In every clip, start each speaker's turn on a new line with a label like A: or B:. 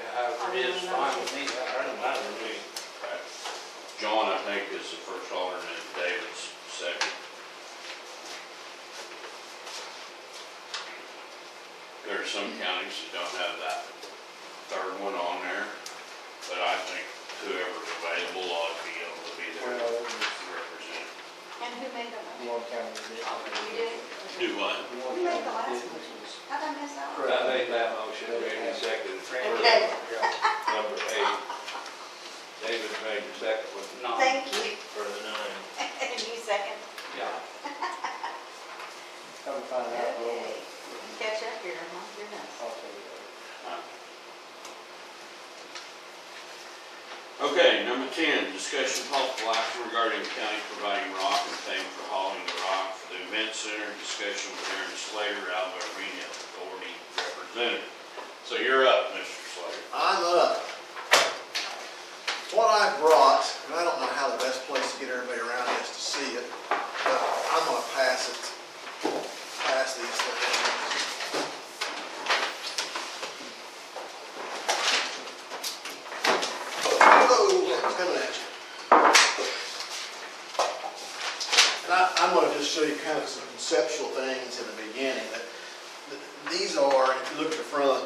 A: It's fine with me, I don't mind with me.
B: John, I think, is the first alternate, David's second. There are some counties that don't have that third one on there, but I think whoever's available ought to be able to be there
C: Well,
B: to
C: there's
B: represent.
D: And who made the motion?
C: one county that
D: You
C: did.
D: did?
B: Do what?
C: One
D: Who made the
C: county
D: last
C: that
D: motion?
C: did.
D: How'd I mess up?
E: I
C: Correct.
E: made that motion, Randy seconded,
D: Okay,
E: number eight. David made the second one.
B: No.
D: thank you.
E: For the nine.
D: And you second.
E: Yeah.
C: Come to find out, well,
D: Okay. Catch up here, huh? You're nuts.
C: I'll tell you.
B: Okay, number ten, discussion possible action regarding the county providing rock and paying for hauling the rock for the event center, discussion with Aaron Slater, Alba Arena Authority representative. So you're up, Mr. Slater.
F: I'm up. What I brought, and I don't know how the best place to get everybody around is to see it, but I'm gonna pass it, pass these things. Whoa, it's coming at you. And I, I'm gonna just show you kind of some conceptual things in the beginning, but th- these are, if you look at the front,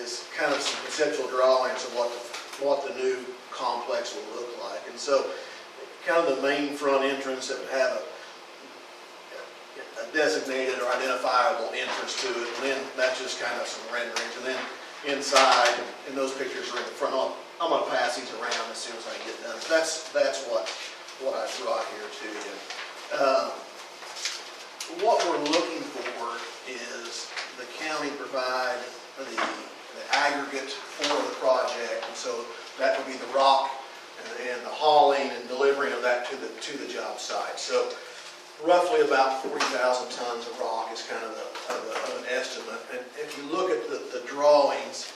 F: is kind of some conceptual drawings of what, the- what the new complex will look like. And so, kind of the main front entrance that would have a a designated or identifiable entrance to it, and then that's just kind of some renderings, and then inside, and those pictures are in the front. I'll- I'm gonna pass these around as soon as I get done. That's, that's what, what I brought here to you. Uh, What we're looking for is the county provide the the aggregate for the project, and so that would be the rock and- and the hauling and delivering of that to the, to the job site. So roughly about 40,000 tons of rock is kind of the, of the- of an estimate. And if you look at the, the drawings,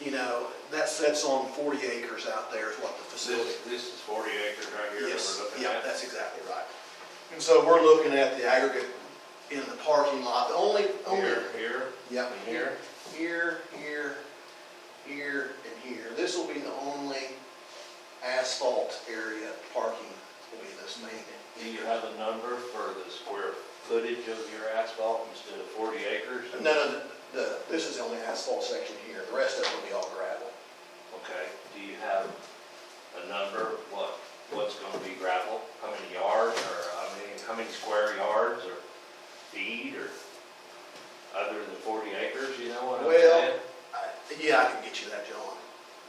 F: you know, that sets on 40 acres out there is what the facility
E: This, this is forty acres right here that
F: Yes,
E: we're looking
F: yeah,
E: at.
F: that's exactly right. And so we're looking at the aggregate in the parking lot, the only, only.
E: Here, here,
F: Yeah,
E: and
F: here,
E: here.
F: here, here, here, and here. This will be the only asphalt area parking will be this
E: Do
F: main.
E: you have a number for the square footage of your asphalt instead of forty acres?
F: No, no, the- the, this is the only asphalt section here, the rest of it will be all gravel.
E: Okay, do you have a number, what, what's gonna be gravel? How many yards, or how many, how many square yards, or feet, or other than forty acres, you know what I'm
F: Well-
E: saying?
F: I- Yeah, I can get you that, John.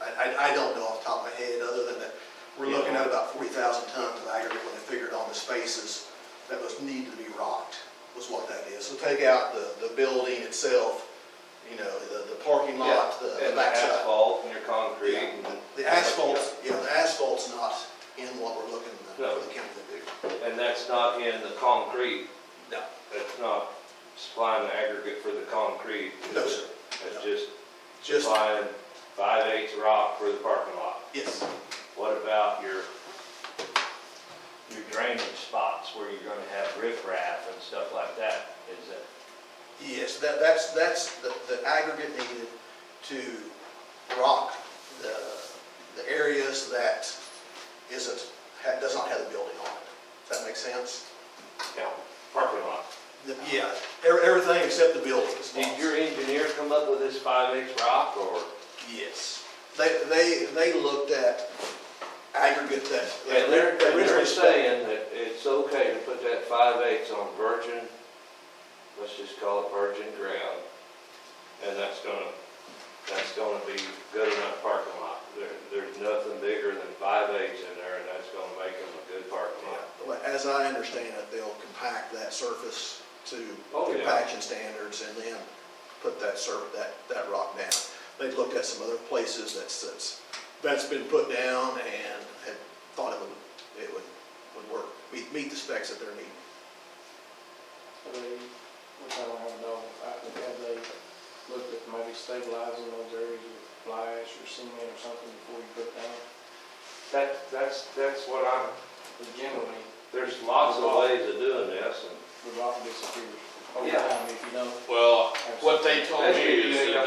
F: I, I, I don't know off the top of my head, other than that, we're looking at about forty thousand tons of aggregate when they figured on the spaces that was needed to be rocked, was what that is. So take out the, the building itself, you know, the, the parking lot, the the
E: And
F: backside.
E: asphalt, and your concrete, and.
F: The asphalt, yeah, the asphalt's not in what we're looking for
E: No.
F: the county to do.
E: And that's not in the concrete,
F: No.
E: that's not supplying the aggregate for the concrete.
F: No, sir.
E: That's just
F: Just,
E: supplying five eighths rock for the parking lot.
F: yes.
E: What about your, your drainage spots where you're gonna have riprap and stuff like that? Is that,
F: Yes, that, that's, that's the, the aggregate needed to rock the, the areas that isn't, ha- does not have a building on it. Does that make sense?
E: yeah, parking lot?
F: The- Yeah, ev- everything except the buildings.
E: Did your engineer come up with this five eighths rock or?
F: Yes. They, they, they looked at aggregate that.
E: And they're, and
F: that
E: they're
F: originally-
E: saying that it's okay to put that five eighths on virgin, let's just call it virgin ground. And that's gonna, that's gonna be good enough parking lot. There, there's nothing bigger than five eighths in there and that's gonna make them a good parking lot.
F: Well, As I understand it, they'll compact that surface to
E: Oh, yeah.
F: compaction standards and then put that sur, that, that rock down. They've looked at some other places that's, that's, that's been put down and had thought it would, it would, would work, meet, meet the specs that they're needing.
C: They- Which I don't have no, I think had they looked at maybe stabilizing those areas with fly ash or cement or something before you put down.
E: That, that's, that's what I'm,
C: But generally,
E: there's lots of ways of doing this and
C: the rock disappears over
E: Yeah.
C: time if you don't
B: Well, what they told me
E: That's
B: is
E: what you
B: that